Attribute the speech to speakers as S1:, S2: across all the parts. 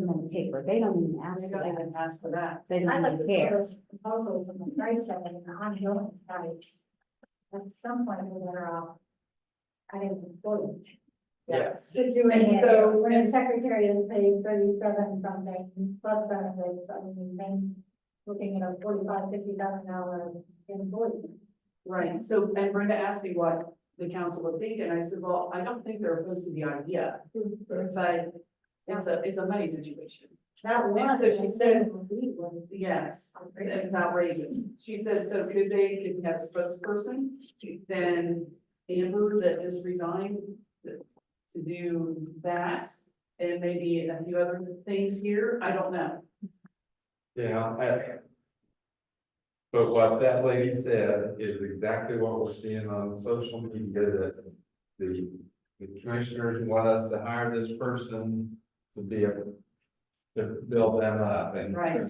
S1: on the paper, they don't even ask
S2: They
S1: for
S2: don't
S1: that,
S2: even ask for that.
S1: they
S3: I
S1: don't
S3: like
S1: even
S3: to see
S1: care.
S3: those proposals and the price of it and the ongoing price. At some point, we're better off. I didn't quote.
S2: Yes.
S3: To do
S2: And
S3: it,
S2: so-
S3: so when the secretary is paid thirty-seven something plus benefits, I mean, things. Looking at a forty-five, fifty thousand dollar employee.
S2: Right, so, and Brenda asked me what the council would think, and I said, well, I don't think they're opposed to the idea, but it's a, it's a money situation.
S3: That
S2: And
S3: was.
S2: so she said-
S3: We were-
S2: Yes, it's outrageous. She said, so could they, could we have a spokesperson, then Amber that just resigned to do that, and maybe a few other things here, I don't know.
S4: Yeah, I- But what that lady said is exactly what we're seeing on social media, that the, the commissioners want us to hire this person to be a. To build them up and.
S2: Right.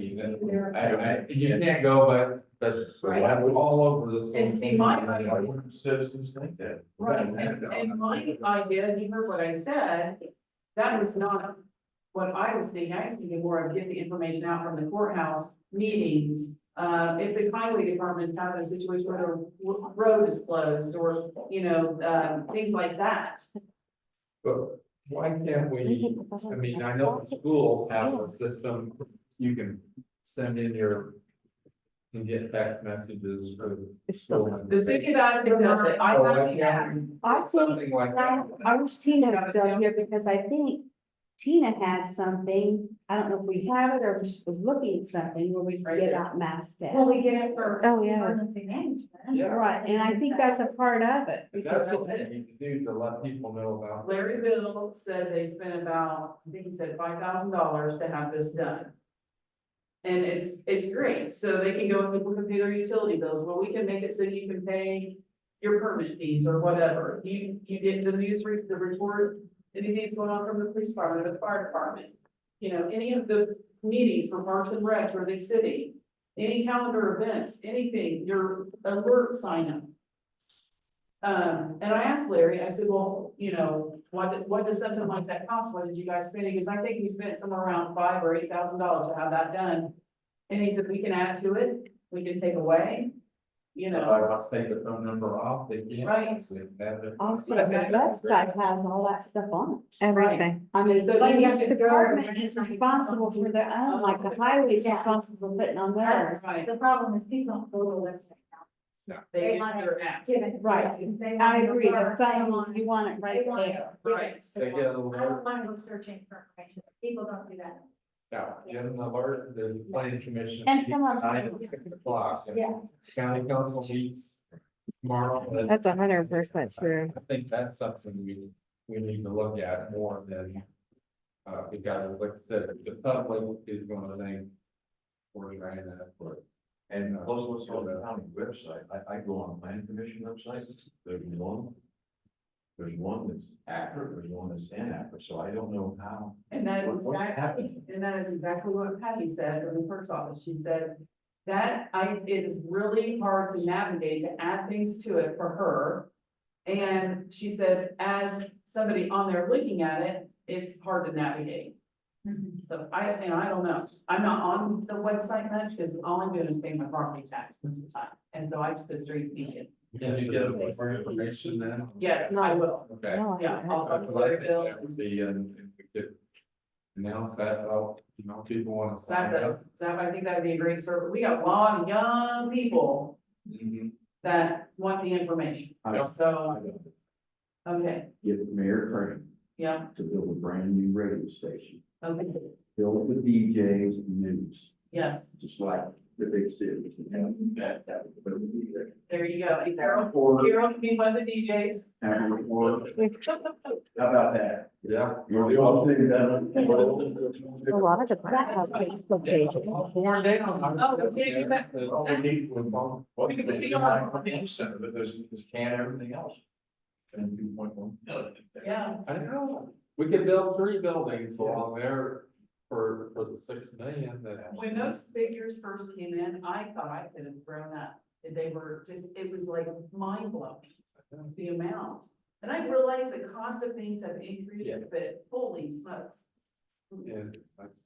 S4: I, I, you can't go, but, but I'm all over this.
S2: And see, my-
S4: Why wouldn't Citizens think that.
S2: Right, and, and my idea, you heard what I said, that was not what I was thinking, I was thinking more of get the information out from the courthouse meetings. Uh, if the highway department's having a situation where the w- road is closed, or, you know, um, things like that.
S4: But why can't
S1: We
S4: we?
S1: can provide
S4: I mean, I
S1: that
S4: know
S1: for-
S4: schools have a system, you can send in your. And get text messages for the
S1: It's still-
S4: school.
S2: The city of Attica does it, I
S4: So
S2: have
S4: why
S2: the app.
S4: can't we-
S1: I think,
S4: Something like that,
S1: I wish Tina was down here because I think Tina had something, I don't know if we have it or if she was looking at something where we
S2: Right
S1: forget
S2: there.
S1: about mass death.
S3: Well, we did it for.
S1: Oh, yeah.
S3: Emergency management.
S4: Yeah.
S1: Right, and I think that's a part of it.
S4: But that's what we need to do to let people know about.
S2: Larry Bill said they spent about, I think he said five thousand dollars to have this done. And it's, it's great, so they can go and people can pay their utility bills, well, we can make it so you can pay your permit fees or whatever, you, you get the news, re- the report, anything that's going on from the police department or the fire department. You know, any of the meetings for parks and recs or the city, any calendar events, anything, your alert sign up. Um, and I asked Larry, I said, well, you know, what, what does something like that cost? What did you guys spend? Because I think you spent somewhere around five or eight thousand dollars to have that done. And he said, we can add to it, we can take away, you
S4: If
S2: know,
S4: I must take the phone number off, they can't.
S2: Right.
S4: They have it.
S1: Also, the website has all that stuff on it.
S2: Everything.
S1: I mean,
S2: So
S1: but
S2: you
S1: each
S3: have to go
S1: department
S3: and-
S1: is responsible for their own, like the highway is responsible for putting on theirs.
S2: right,
S3: The problem is people don't go to the website now.
S2: they use their app,
S3: Given.
S1: Right.
S3: They
S1: I
S3: want to
S1: agree, the
S3: learn, they
S1: phone,
S3: want-
S1: you want it right
S3: they want it
S1: there.
S3: given.
S2: right.
S4: They get an
S3: I don't
S4: alert,
S3: wanna go searching for information, people don't do that.
S4: yeah, get an alert, the planning commission.
S1: And some of
S4: Nine
S1: them-
S4: to six o'clock, and
S3: Yes.
S4: county council meets tomorrow. and-
S5: That's a hundred percent true.
S4: I think that's something we, we need to look at more than, uh, because like I said, the public is gonna think we're trying to, for,
S6: And plus what's on the county website, I, I go on the land commission website, there's one. There's one that's accurate, there's one that's inaccurate, so I don't know how.
S2: And that is
S6: What- what's
S2: exactly,
S6: happening?
S2: and that is exactly what Patty said from the clerk's office, she said. That I, it is really hard to navigate to add things to it for her. And she said, as somebody on there looking at it, it's hard to navigate. So I, and I don't know, I'm not on the website much, because all I'm doing is paying my property tax most of the time, and so I just go straight to media.
S4: can you get more information then?
S2: Yes, I will,
S4: Okay.
S5: No, I
S2: Yeah,
S5: haven't heard
S2: I'll talk
S4: I'll talk
S2: to
S4: to Larry
S2: Larry Bill.
S4: about that, The, and and we could announce that, out, you know, people wanna
S2: So that,
S4: sign up.
S2: that's- that, I think that'd be a great service, we got a lot of young people.
S6: Mm-hmm.
S4: Mhm.
S2: that want the information.
S6: I- I
S2: So,
S6: don't
S2: okay,
S6: Get Mayor Crane
S2: yeah,
S6: to build a brand new radio station,
S2: okay,
S6: fill it with DJs and news,
S2: yes,
S6: just like the big cities. you know? That, that would be there.
S2: there you go. And Carol,
S6: Or,
S2: Carol can be one of the DJs.
S6: or- or- how about that?
S4: Yeah.
S6: You're the only thing that.
S5: A lot of departments have Facebook pages.
S4: All torn down. I'm-
S2: Oh, we can't do that.
S4: All we need was one-
S2: We can- we don't have-
S6: Center, but there's, there's can everything else. And two point one million.
S2: Yeah,
S4: I don't know, we could build three buildings along there for, for the six million that.
S2: when those figures first came in, I thought I could have grown up. They were just, it was like mind blowing, the amount. And I realized the cost of things have increased,
S4: Yeah.
S2: but holy smokes.
S4: And like